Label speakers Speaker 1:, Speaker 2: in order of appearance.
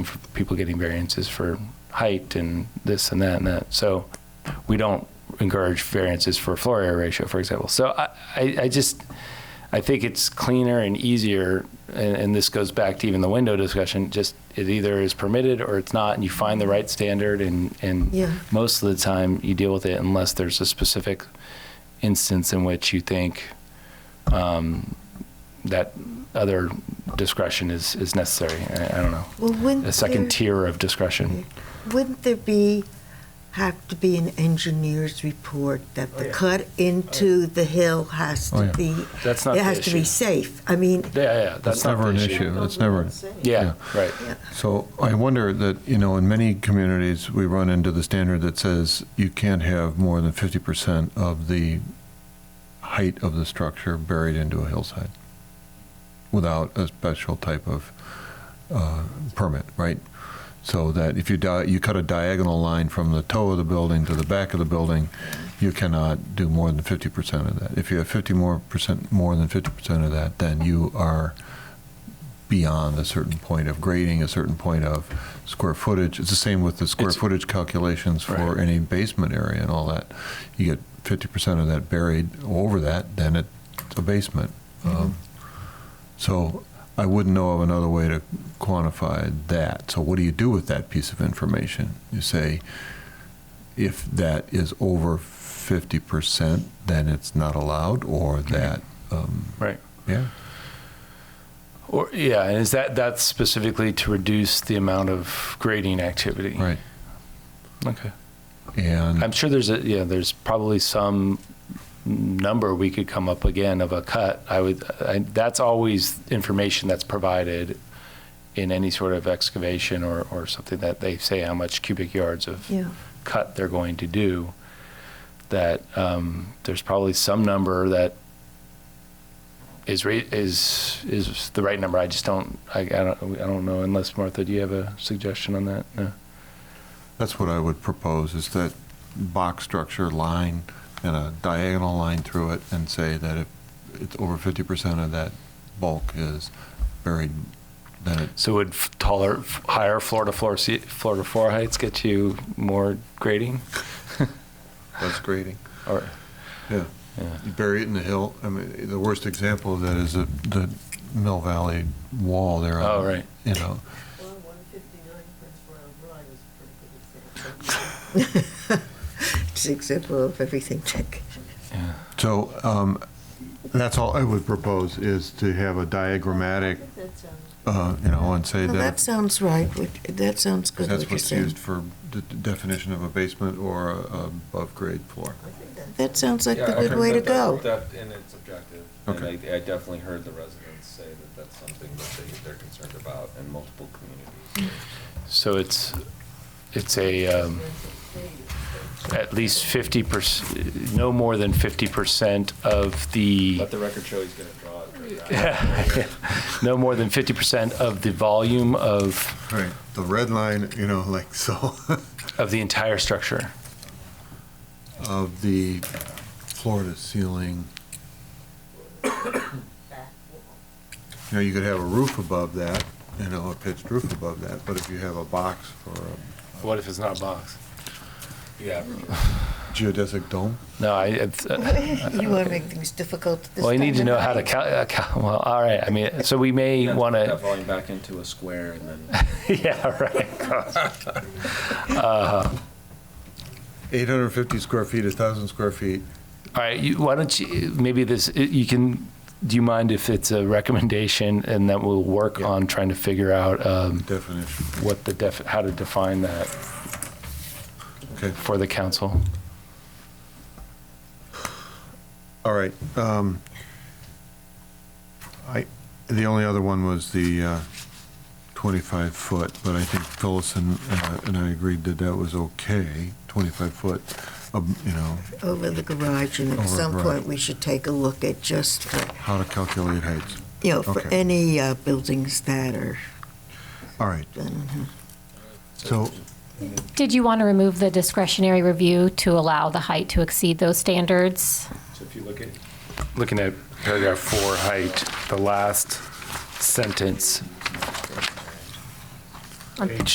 Speaker 1: for people getting variances for height and this and that and that. So we don't encourage variances for floor area ratio, for example. So I, I, I just, I think it's cleaner and easier, and, and this goes back to even the window discussion, just it either is permitted or it's not, and you find the right standard, and, and
Speaker 2: Yeah.
Speaker 1: most of the time you deal with it unless there's a specific instance in which you think um, that other discretion is, is necessary. I, I don't know
Speaker 2: Well, wouldn't
Speaker 1: a second
Speaker 2: there,
Speaker 1: tier of discretion.
Speaker 2: wouldn't there be have to be an engineer's report that the
Speaker 1: Oh, yeah.
Speaker 2: cut into the hill has to
Speaker 3: Oh, yeah.
Speaker 2: be
Speaker 1: That's not
Speaker 2: it
Speaker 1: the
Speaker 2: has to be
Speaker 1: issue.
Speaker 2: safe. I mean,
Speaker 1: Yeah, yeah, that's,
Speaker 3: That's
Speaker 1: not the
Speaker 3: never an issue. It's never,
Speaker 1: Yeah, right.
Speaker 3: so I wonder that, you know, in many communities, we run into the standard that says you can't have more than 50% of the height of the structure buried into a hillside without a special type of uh, permit, right? So that if you di, you cut a diagonal line from the toe of the building to the back of the building, you cannot do more than 50% of that. If you have 50 more percent, more than 50% of that, then you are beyond a certain point of grading, a certain point of square footage. It's the same with the square
Speaker 1: It's-
Speaker 3: footage calculations for
Speaker 1: Right.
Speaker 3: any basement area and all that. You get 50% of that buried over that, then it's a basement. Um, So I wouldn't know of another way to quantify that. So what do you do with that piece of information? You say, if that is over 50%, then it's not allowed, or that, um,
Speaker 1: Right.
Speaker 3: yeah.
Speaker 1: Or yeah, and is that that's specifically to reduce the amount of grading activity?
Speaker 3: Right. Mm.
Speaker 1: Okay.
Speaker 3: And,
Speaker 1: I'm sure there's a yeah, there's probably some number we could come up again of a cut. I would I, that's always information that's provided in any sort of excavation or, or something that they say how much cubic yards of
Speaker 2: Yeah.
Speaker 1: cut they're going to do, that um, there's probably some number that is re- is is the right number. I just don't I, I don't I don't know unless Martha, do you have a suggestion on that? No.
Speaker 3: That's what I would propose, is that box structure line and a diagonal line through it, and say that if it's over 50% of that bulk is buried, then it,
Speaker 1: So would f- taller, f- higher floor to floor se- floor to floor heights get you more grading?
Speaker 3: that's grading.
Speaker 1: Or
Speaker 3: Yeah.
Speaker 1: Yeah.
Speaker 3: You bury it in the hill, I mean, the worst example of that is the, the Mill Valley wall there. on-
Speaker 1: Oh, right.
Speaker 3: You know,
Speaker 4: Well, 159 Prince Royal Drive is a pretty good example.
Speaker 2: It's an example of everything. Tech.
Speaker 3: so, um, that's all I would propose, is to have a diagrammatic,
Speaker 4: I think that sounds
Speaker 3: uh, you know, and say
Speaker 2: Well, that
Speaker 3: that
Speaker 2: sounds right. What- That sounds good.
Speaker 3: that's
Speaker 2: what you're
Speaker 3: what's
Speaker 2: saying.
Speaker 3: used for the d- definition of a basement or a above-grade floor.
Speaker 2: That sounds like the
Speaker 5: Yeah, I
Speaker 2: good way to
Speaker 5: heard
Speaker 2: go.
Speaker 5: that- that- And it's objective. And
Speaker 3: Okay.
Speaker 5: I, I definitely heard the residents say that that's something that they, they're concerned about in multiple communities.
Speaker 1: so it's it's a um, at least fifty percent, no more than fifty percent of the.
Speaker 5: Let the record show he's gonna draw it.
Speaker 1: no more than 50% of the volume of,
Speaker 3: Right, the red line, you know, like, so,
Speaker 1: of the entire structure.
Speaker 3: of the floor to ceiling.
Speaker 4: back wall.
Speaker 3: You know, you could have a roof above that, you know, a pitched roof above that, but if you have a box or a
Speaker 1: What if it's not box?
Speaker 5: Yeah.
Speaker 3: geodesic dome,
Speaker 1: No, I, it's, uh,
Speaker 2: You want to make things difficult this
Speaker 1: well, you need to
Speaker 2: time
Speaker 1: know
Speaker 2: of
Speaker 1: how to
Speaker 2: night.
Speaker 1: cal, uh, cal, well, all right, I mean, so we may want
Speaker 5: That
Speaker 1: to,
Speaker 5: volume back into a square and then,
Speaker 1: yeah, right.
Speaker 3: 850 square feet, 1,000 square feet.
Speaker 1: All right, you, why don't you, maybe this, uh, you can, do you mind if it's a recommendation and that we'll work
Speaker 3: Yeah.
Speaker 1: on trying to figure out, um,
Speaker 3: Definition,
Speaker 1: what the def, how to define that
Speaker 3: okay.
Speaker 1: for the council?
Speaker 3: All right. um, I, the only other one was the 25-foot, but I think Phyllis and uh, and I agreed that that was okay, 25-foot, you know,
Speaker 2: Over the garage, and at
Speaker 3: Over
Speaker 2: some
Speaker 3: garage.
Speaker 2: point, we should take a look at just, for-
Speaker 3: how to calculate heights.
Speaker 2: you know, for
Speaker 3: Okay.
Speaker 2: any uh, buildings that are
Speaker 3: All right,
Speaker 2: done.
Speaker 3: so,
Speaker 6: Did you want to remove the discretionary review to allow the height to exceed those standards?
Speaker 5: so if you look at,
Speaker 1: looking at paragraph four, height, the last sentence.
Speaker 6: on